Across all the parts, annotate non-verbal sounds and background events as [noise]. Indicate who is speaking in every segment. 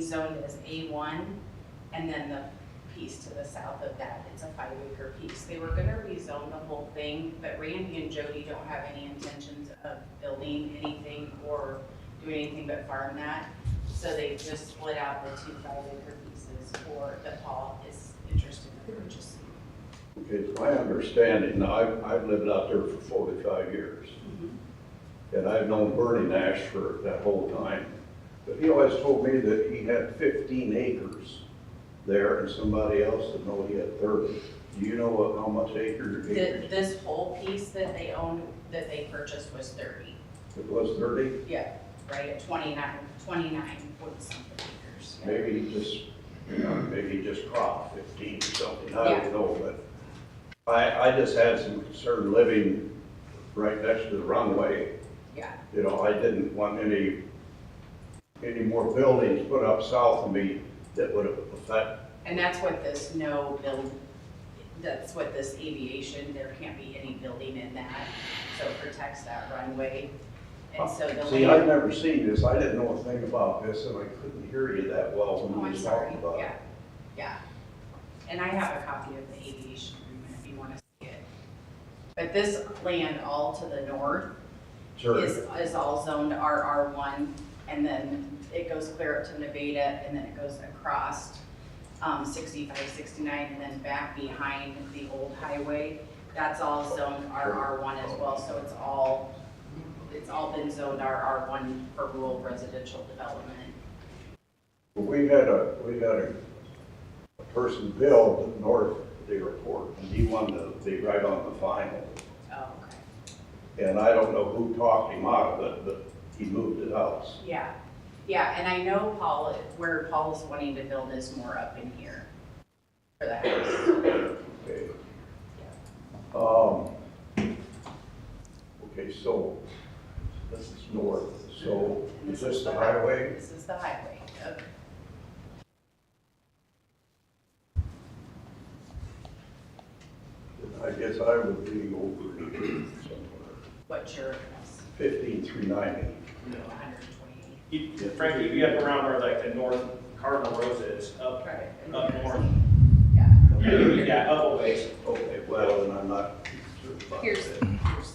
Speaker 1: zoned as A1, and then the piece to the south of that, it's a five acre piece. They were gonna rezone the whole thing, but Randy and Jody don't have any intentions of building anything or doing anything but farm that. So they just split out the two five acre pieces for, that Paul is interested in purchasing.
Speaker 2: Okay, it's my understanding, now, I've, I've lived out there for forty-five years, and I've known Bernie Nash for that whole time. But he always told me that he had fifteen acres there, and somebody else that know he had thirty. Do you know what, how much acre,
Speaker 1: Th-
Speaker 2: acres
Speaker 1: This whole piece that they owned, that they purchased was 30,
Speaker 2: it was thirty?
Speaker 1: yeah, right, at 29, 29 point something acres. yeah.
Speaker 2: Maybe he just, you know, maybe he just cropped fifteen or something, I don't know, but I, I just had some concern living right next to the runway,
Speaker 1: Yeah,
Speaker 2: You know, I didn't want any, any more buildings put up south of me that would affect,
Speaker 1: And that's what this no build, that's what this aviation, there can't be any building in that, so it protects that runway. And so the
Speaker 2: see,
Speaker 1: land,
Speaker 2: I've never seen this, I didn't know a thing about this, and I couldn't hear you that well
Speaker 1: oh,
Speaker 2: when
Speaker 1: I'm
Speaker 2: you were
Speaker 1: sorry,
Speaker 2: talking about it.
Speaker 1: yeah, yeah. And I have a copy of the aviation agreement if you want to see it. But this land all to the north
Speaker 2: Sure.
Speaker 1: is, is all zoned RR one, and then it goes clear up to Nevada, and then it goes across, um, sixty-five, sixty-nine, and then back behind the old highway. That's all zoned RR one as well, so it's all, it's all been zoned RR one for rural residential development.
Speaker 2: We had a, we had a, a person build north of the airport, and he wanted to be right on the final.
Speaker 1: Oh, okay.
Speaker 2: And I don't know who talked him out of it, but he moved his house.
Speaker 1: Yeah, yeah, and I know Paul, where Paul's wanting to build is more up in here for the house.
Speaker 2: Okay. Um, okay, so this is north, so
Speaker 1: And
Speaker 2: is this the
Speaker 1: hi-
Speaker 2: highway?
Speaker 1: This is the highway, okay.
Speaker 2: I guess I would be over somewhere,
Speaker 1: What's your address?
Speaker 2: fifteen through ninety.
Speaker 1: You know, 128.
Speaker 3: You- Frankie, if you get up around where like the north Cardinal Rose is, up, up north,
Speaker 1: Yeah.
Speaker 3: yeah, up a ways.
Speaker 2: Okay, well, and I'm not sure about
Speaker 1: Here's,
Speaker 2: that.
Speaker 1: here's,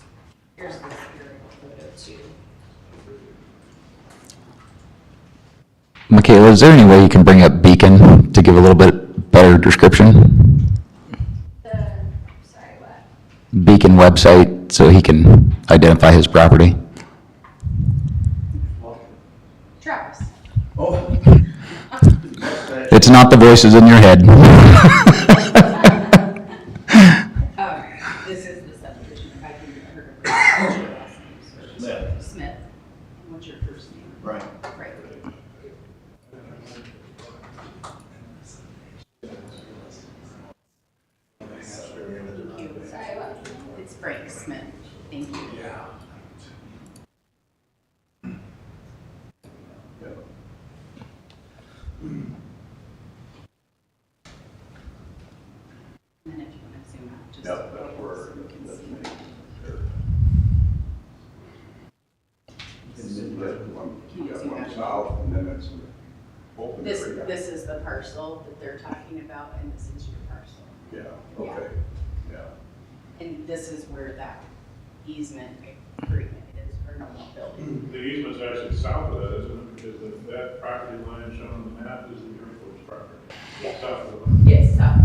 Speaker 1: here's the serial photo too.
Speaker 4: Michaela, is there any way you can bring up Beacon to give a little bit better description?
Speaker 5: The, sorry, what?
Speaker 4: Beacon website, so he can identify his property?
Speaker 5: [laughs]
Speaker 1: Travis.
Speaker 2: Oh,
Speaker 4: It's not the voices in your head. [laughs]
Speaker 1: Um, this is the subdivision, if I can heard of what's your last name, sir?
Speaker 2: Smith.
Speaker 1: Smith. And what's your first name?
Speaker 2: right.
Speaker 1: Right. Thank you.
Speaker 5: Sorry, what?
Speaker 1: It's Frank Smith. Thank you.
Speaker 2: yeah.
Speaker 1: And then if you want to zoom out, just.
Speaker 2: Yeah, that's where,
Speaker 1: so we can
Speaker 2: that's
Speaker 1: see.
Speaker 2: me. There. And then that one, you got one south, and then it's an open
Speaker 1: This,
Speaker 2: area.
Speaker 1: this is the parcel that they're talking about, and this is your parcel.
Speaker 2: Yeah, okay, yeah.
Speaker 1: And this is where that easement agreement is for normal building.
Speaker 6: The easement's actually south of that, isn't it? Because the- that property line shown on the map is the airport's property.
Speaker 1: Yeah.
Speaker 6: South of the line.
Speaker 1: Yes, uh,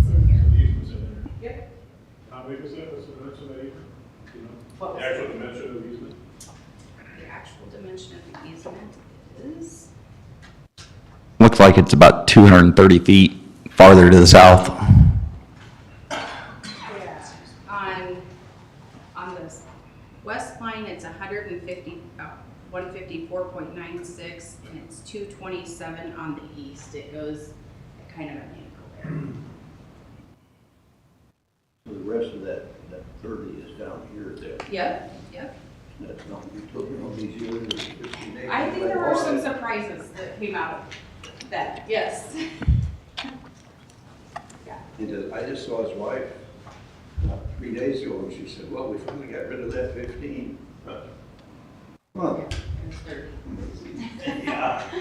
Speaker 1: it's in here.
Speaker 6: So The easement's in there.
Speaker 1: Yep.
Speaker 6: How big is that, what's the dimension of that easement? Do you know?
Speaker 1: What was
Speaker 6: The actual dimension of the easement?
Speaker 1: the actual dimension of the easement is?
Speaker 4: Looks like it's about 230 feet farther to the south.
Speaker 1: Yeah. On, on the west line, it's a hundred and fifty, uh, one fifty-four point nine six, and it's two twenty-seven on the east. It goes kind of an angle
Speaker 7: So The rest of that, that thirty is down here, that,
Speaker 1: there. Yep, yep.
Speaker 7: that's not, you took it on these years, it's fifteen acres.
Speaker 1: I think there were some surprises that came out of that, yes.
Speaker 7: And uh, I just saw his wife uh, three days ago, and she said, well, we finally got rid of that fifteen. Huh.
Speaker 1: It was thirty.
Speaker 7: Yeah.